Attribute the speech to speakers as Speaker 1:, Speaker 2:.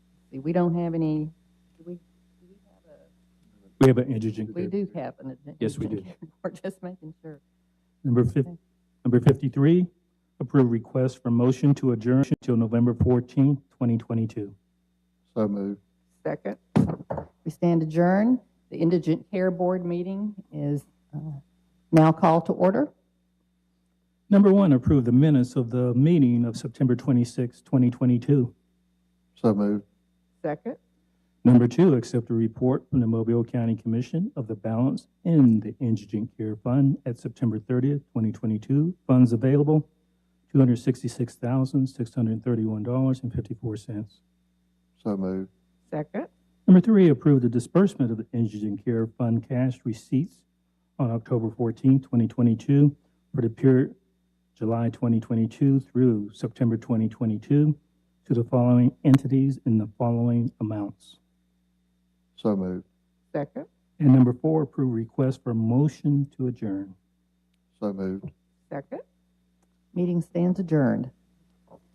Speaker 1: See, we don't have any, do we, do we have a,
Speaker 2: We have an indigent
Speaker 1: we
Speaker 2: group.
Speaker 1: do have an.
Speaker 2: Yes, we do.
Speaker 1: We're just making sure.
Speaker 2: Number fif, number fifty-three, approve request for motion to adjourn till November fourteenth, twenty twenty-two.
Speaker 3: So moved.
Speaker 1: Second. We stand adjourned. The Indigent Care Board meeting is uh, now called to order.
Speaker 2: Number one, approve the minutes of the meeting of September twenty-sixth, twenty twenty-two.
Speaker 3: So moved.
Speaker 1: Second.
Speaker 2: Number two, accept a report from the Mobile County Commission of the balance in the indigent care fund at September thirtieth, twenty twenty-two. Funds available, two hundred sixty-six thousand, six hundred thirty-one dollars and fifty-four cents.
Speaker 3: So moved.
Speaker 1: Second.
Speaker 2: Number three, approve the disbursement of the Indigent Care Fund cash receipts on October 14, 2022, for the period July 2022 through September 2022, to the following entities in the following amounts.
Speaker 3: So moved.
Speaker 1: Second.
Speaker 2: And number four, approve request for motion to adjourn.
Speaker 3: So moved.
Speaker 1: Second. Meeting stands adjourned.